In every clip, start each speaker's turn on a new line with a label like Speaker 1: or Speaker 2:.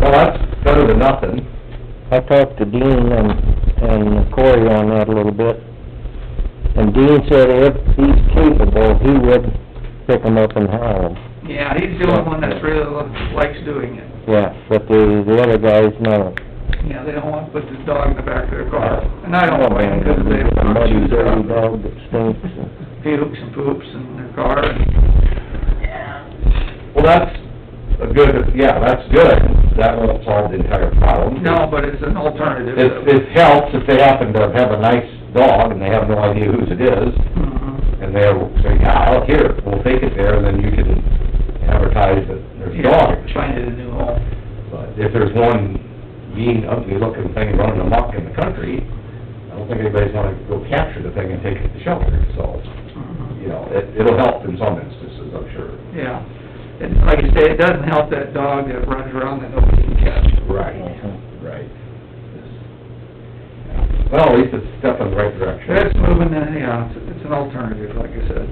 Speaker 1: four to nothing.
Speaker 2: I talked to Dean and, and Cory on that a little bit, and Dean said if he's capable, he would pick them up and haul them.
Speaker 3: Yeah, he's the only one that's really lo- likes doing it.
Speaker 2: Yeah, but the, the other guys, no.
Speaker 3: Yeah, they don't want to put the dog in the back of their car. And I don't blame them, because
Speaker 2: It's a
Speaker 3: they
Speaker 2: muddy,
Speaker 3: choose their
Speaker 2: dirty
Speaker 3: own
Speaker 2: dog that stinks. and-
Speaker 3: pukes and poops in their car. and-
Speaker 1: Well, that's a good, yeah, that's good. That won't solve the entire problem.
Speaker 3: No, but it's an alternative.
Speaker 1: It, it helps if they happen to have a nice dog and they have no idea whose it is,
Speaker 3: Mhm.
Speaker 1: and they're saying, yeah, I'll hear it, we'll take it there, and then you can advertise that there's a dog.
Speaker 3: Yeah, Find it a new home.
Speaker 1: But if there's one mean, ugly-looking thing running amok in the country, I don't think anybody's gonna go capture the thing and take it to shelter, so,
Speaker 3: Mhm.
Speaker 1: you know, it, it'll help in some instances, I'm sure.
Speaker 3: Yeah. And like you say, it doesn't help that dog that runs around that nobody can catch.
Speaker 1: Right, right. Well, at least it's a step in the right direction.
Speaker 3: That's moving, in, yeah, it's, it's an alternative, like I said.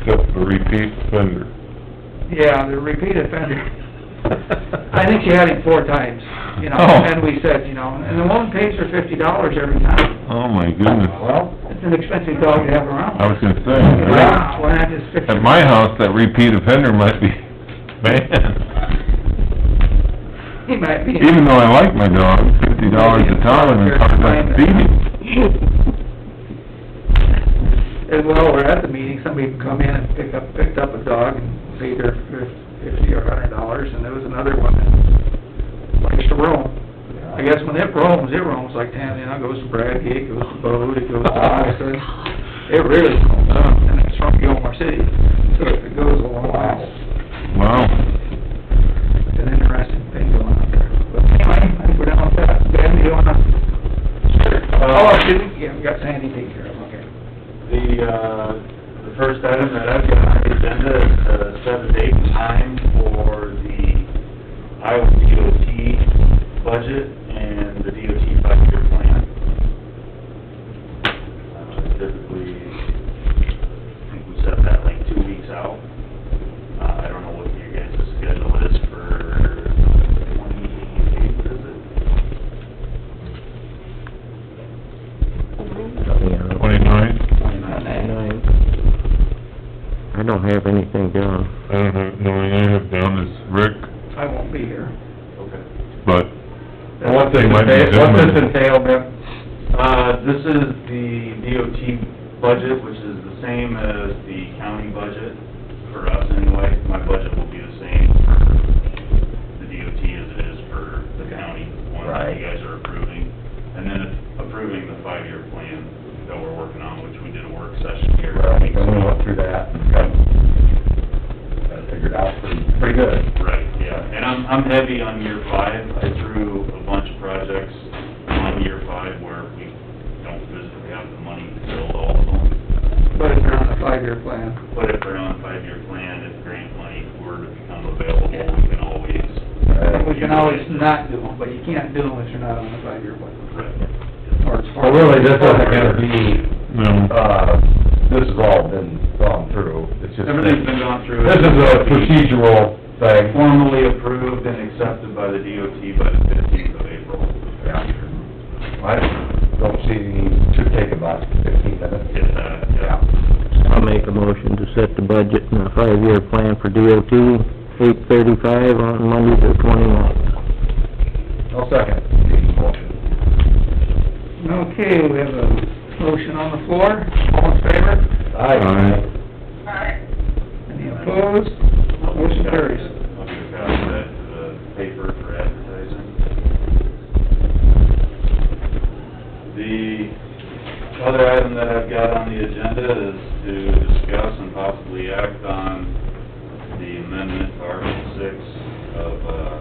Speaker 4: except the repeat offender.
Speaker 3: Yeah, the repeat offender. I think she had him four times, you know,
Speaker 4: Oh.
Speaker 3: and we said, you know, and the woman pays her fifty dollars every time.
Speaker 4: Oh, my goodness.
Speaker 1: Well,
Speaker 3: It's an expensive dog to have around.
Speaker 4: I was gonna say, right?
Speaker 3: Wow, and that is fifty.
Speaker 4: at Oh, my house, that repeat offender might be banned.
Speaker 3: He might be.
Speaker 4: Even though I like my dog, fifty dollars a ton, and it's hard not to feed him.
Speaker 3: And while we're at the meeting, somebody can come in and pick up, picked up a dog and paid her fifty or a hundred dollars, and there was another one that likes to roam. I guess when it roams, it roams like ten, you know, goes to Bradgate, goes to Bode, it goes to Austin. It really roams, huh? and it's from Gilmore City, so it goes a long while.
Speaker 4: Wow.
Speaker 3: It's an interesting thing going on there. But anyway, I think we're done with that. Ben, do you wanna? Oh, I didn't, yeah, we got Sandy taken care of, okay.
Speaker 5: The, uh, the first item that I've got on the agenda is the set a date and time for the Iowa DOT budget and the DOT five-year plan. Uh, Typically, I think we set that like two weeks out. Uh, I don't know what your guys' schedule is for twenty-eighth, is it?
Speaker 2: Yeah,
Speaker 4: Twenty-nine?
Speaker 3: Twenty-nine.
Speaker 2: I don't have anything down.
Speaker 4: I don't have, no, I have down is Rick,
Speaker 3: I won't be here.
Speaker 5: Okay.
Speaker 4: but
Speaker 1: what's
Speaker 4: They
Speaker 1: this
Speaker 4: might be
Speaker 1: entail, what's this
Speaker 4: doing it.
Speaker 1: entail, Ben?
Speaker 5: Uh, this is the DOT budget, which is the same as the county budget for us anyway. My budget will be the same for the DOT as it is for the county one that
Speaker 2: Right.
Speaker 5: you guys are approving. And then approving the five-year plan that we're working on, which we did a work session here.
Speaker 1: Well, we went through that and got, got it figured out pretty, pretty good.
Speaker 5: Right, yeah, and I'm, I'm heavy on year five, I threw a bunch of projects on year five where we don't physically have the money to build all of them.
Speaker 3: But if you're on a five-year plan,
Speaker 5: But if they're on a five-year plan, if grant money were to become available, we can always,
Speaker 3: we can always not do them, but you can't do them if you're not on a five-year plan.
Speaker 5: right,
Speaker 3: Or it's
Speaker 4: Oh,
Speaker 1: Well,
Speaker 3: hard.
Speaker 1: really, this isn't gonna be,
Speaker 4: no,
Speaker 1: uh, this has all been gone through, it's just.
Speaker 5: everything's been gone through.
Speaker 1: This is a procedural thing.
Speaker 5: Formally approved and accepted by the DOT by the fifteenth of April.
Speaker 1: Yeah. I don't see, it should take about fifteen minutes.
Speaker 5: Get that, yeah.
Speaker 2: I'll make a motion to set the budget and the five-year plan for DOT, eight thirty-five on Monday the twenty-ninth.
Speaker 1: I'll second Dean's motion.
Speaker 3: Okay, we have a motion on the floor, all in favor,
Speaker 1: Aye.
Speaker 3: any opposed? Motion carries.
Speaker 5: I'll give a copy of that to the paper for advertising. The other item that I've got on the agenda is to discuss and possibly act on the amendment to Article six of, uh,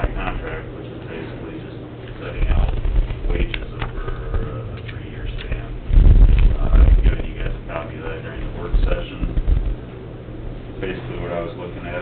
Speaker 5: my contract, which is basically just setting out wages over a three-year span. Uh, I've given you guys a copy of that during the work session basically what I was uh, looking at uh,